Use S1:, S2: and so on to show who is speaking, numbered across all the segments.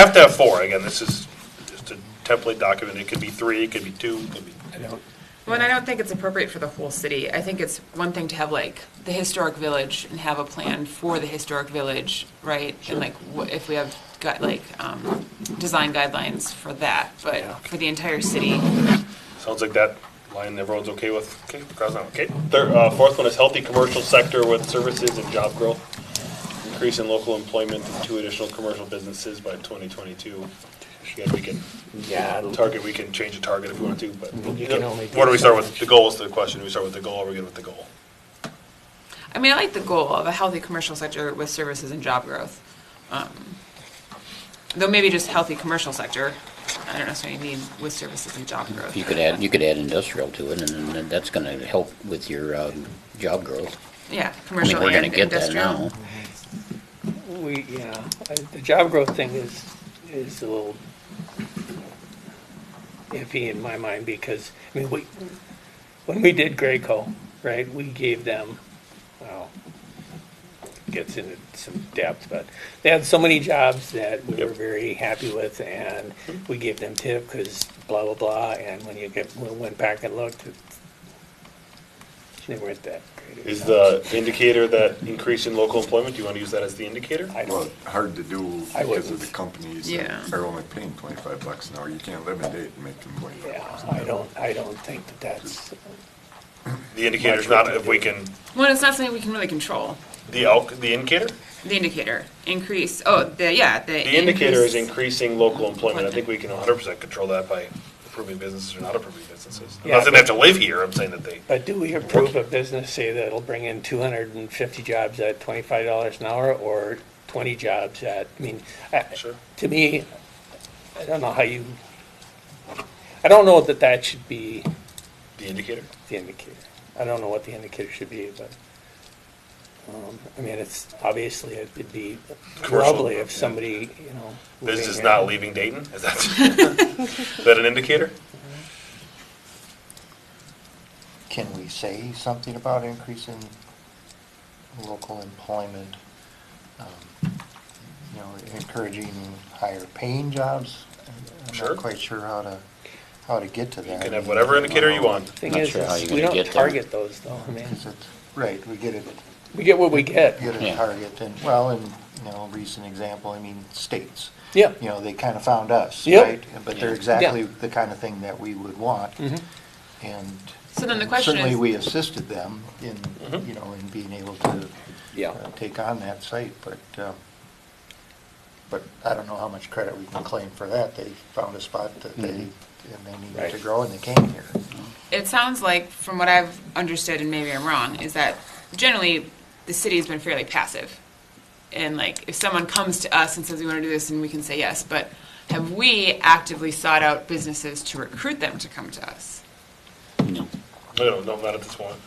S1: Have to have four, again, this is just a template document, it could be three, it could be two, it could be.
S2: I don't,
S3: Well, and I don't think it's appropriate for the whole city. I think it's one thing to have like the historic village and have a plan for the historic village, right? And like wh- if we have got like um, design guidelines for that, but for the entire city,
S1: Sounds like that line everyone's okay with, okay, cross out, okay. Third, uh, fourth one is healthy commercial sector with services and job growth. Increase in local employment in two additional commercial businesses by twenty twenty-two. Again, we can,
S2: yeah, I-
S1: target, we can change the target if we want to, but.
S2: You can only do
S1: What do we start
S2: so
S1: with,
S2: much.
S1: the goal is the question, do we start with the goal, or we good with the goal?
S3: I mean, I like the goal of a healthy commercial sector with services and job growth. Um, Though maybe just healthy commercial sector, I don't necessarily mean with services and job growth.
S4: You could add, you could add industrial to it, and then that's gonna help with your, um, job growth.
S3: Yeah,
S4: I mean,
S3: commercial
S4: we're
S3: and
S4: gonna get that now.
S3: industrial.
S2: we, yeah, I- the job growth thing is, is a little iffy in my mind because, I mean, we, when we did Graco, right, we gave them, well, gets into some depth, but they had so many jobs that we were very happy with and we gave them tip because blah, blah, blah. And when you get, we went back and looked, it's- they weren't that great.
S1: Is the indicator that increase in local employment, do you want to use that as the indicator?
S2: I
S5: Well,
S2: don't,
S5: hard to do
S2: I
S5: because of the
S2: wouldn't.
S5: companies
S3: Yeah.
S5: that are only paying twenty-five bucks an hour. You can't live in Dayton making twenty-five
S2: yeah,
S5: bucks.
S2: I don't, I don't think that that's,
S1: The indicator's not if we can,
S3: Well, it's not something we can really control,
S1: the elk, the indicator?
S3: the indicator, increase, oh, the, yeah, the.
S1: The indicator is
S3: increase-
S1: increasing local employment. I think we can hundred percent control that by approving businesses or not approving businesses. I'm not saying they have to live here, I'm saying that they,
S2: but do we approve a business, say that'll bring in two hundred and fifty jobs at twenty-five dollars an hour or twenty jobs at, I mean, I-
S1: Sure.
S2: to me, I don't know how you, I don't know that that should be
S1: the indicator.
S2: the indicator. I don't know what the indicator should be, but, um, I mean, it's, obviously, it'd be
S1: Commercial,
S2: lovely if
S1: yeah.
S2: somebody, you know. living
S1: Business
S2: here-
S1: not leaving Dayton, is that, is that an indicator?
S6: Can we say something about increasing local employment? um, You know, encouraging higher paying jobs? I'm
S1: Sure.
S6: not quite sure how to, how to get to that.
S1: You can have whatever indicator you want.
S2: Thing
S4: Not
S2: is,
S4: sure how
S2: is
S4: you're
S2: we
S4: gonna
S2: don't
S4: get there.
S2: target those, though, I mean,
S6: Because it's- Right, we get it,
S2: we get what we get,
S6: get a
S4: Yeah.
S6: target, and, well, and, you know, recent example, I mean, states.
S2: yeah.
S6: You know, they kind of found us,
S2: Yep.
S6: right? But
S4: Yeah.
S6: they're exactly the kind of thing that we would want.
S2: Mm-hmm.
S6: And
S3: So then the question
S6: certainly
S3: is-
S6: we assisted them in, you know, in being able to
S2: Mm-hmm. Yeah.
S6: uh, take on that site, but, uh, but I don't know how much credit we can claim for that. They found a spot that they, and they needed to
S2: Mm-hmm. Right.
S6: grow, and they came here.
S3: It sounds like, from what I've understood, and maybe I'm wrong, is that generally the city has been fairly passive. And like, if someone comes to us and says we want to do this, and we can say yes, but have we actively sought out businesses to recruit them to come to us?
S4: No.
S1: No, no, not at this point. We've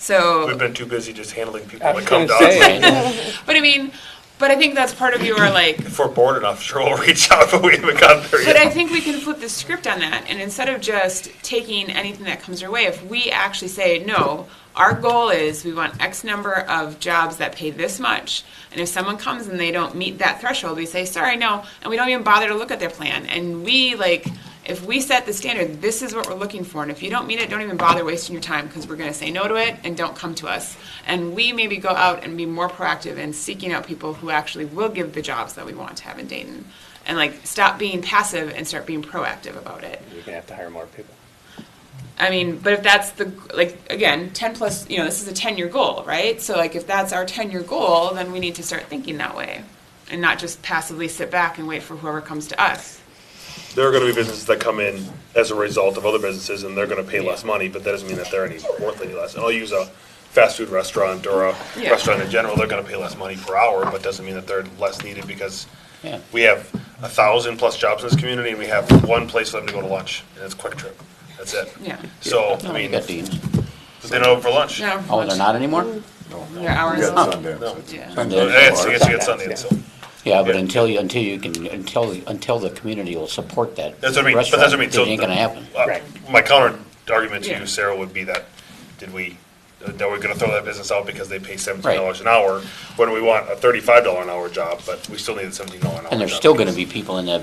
S3: So,
S1: been too busy just handling people
S2: I
S1: that
S2: was
S1: come
S2: gonna
S1: to us.
S2: say,
S4: Right?
S3: but I mean, but I think that's part of your like,
S1: If we're bored enough, sure, we'll reach out, but we haven't gotten there
S3: But I
S1: yet.
S3: think we can flip the script on that, and instead of just taking anything that comes our way, if we actually say, no, our goal is we want X number of jobs that pay this much, and if someone comes and they don't meet that threshold, we say, sorry, no, and we don't even bother to look at their plan, and we like, if we set the standard, this is what we're looking for, and if you don't meet it, don't even bother wasting your time, because we're gonna say no to it, and don't come to us. And we maybe go out and be more proactive in seeking out people who actually will give the jobs that we want to have in Dayton and like stop being passive and start being proactive about it.
S2: You're gonna have to hire more people.
S3: I mean, but if that's the like again, 10 plus, you know, this is a 10-year goal, right? So like if that's our 10-year goal, then we need to start thinking that way and not just passively sit back and wait for whoever comes to us.
S1: There are gonna be businesses that come in as a result of other businesses, and they're gonna pay less money, but that doesn't mean that they're any worth any less. And I'll use a fast food restaurant or a
S3: Yeah.
S1: restaurant in general, they're gonna pay less money per hour, but doesn't mean that they're less needed, because
S4: Yeah.
S1: we have a thousand plus jobs in this community, and we have one place for them to go to lunch, and it's Quick Trip. That's it.
S3: Yeah.
S1: So,
S4: No,
S1: I
S4: we
S1: mean,
S4: got these.
S1: they don't have for lunch.
S3: No.
S4: Oh, they're not anymore?
S5: No, no.
S3: Their hours
S5: We got
S3: off.
S5: Sundance,
S1: No.
S5: it's-
S3: Yeah.
S4: Sunday.
S1: Uh, It's, it's, it's Sunday, so.
S4: Yeah, but
S1: Yeah.
S4: until you, until you can, until, until the community will support that.
S1: That's what I mean, but that's what I mean.
S4: restaurant,
S1: So
S4: It ain't gonna happen.
S1: uh,
S2: Right.
S1: My counter argument to
S3: Yeah.
S1: you, Sarah, would be that, did we, uh, that we're gonna throw that business out because they pay seventeen dollars an hour, when we want a thirty-five dollar an hour job, but we still need a seventeen dollar an hour job.
S4: And there's still gonna be people in that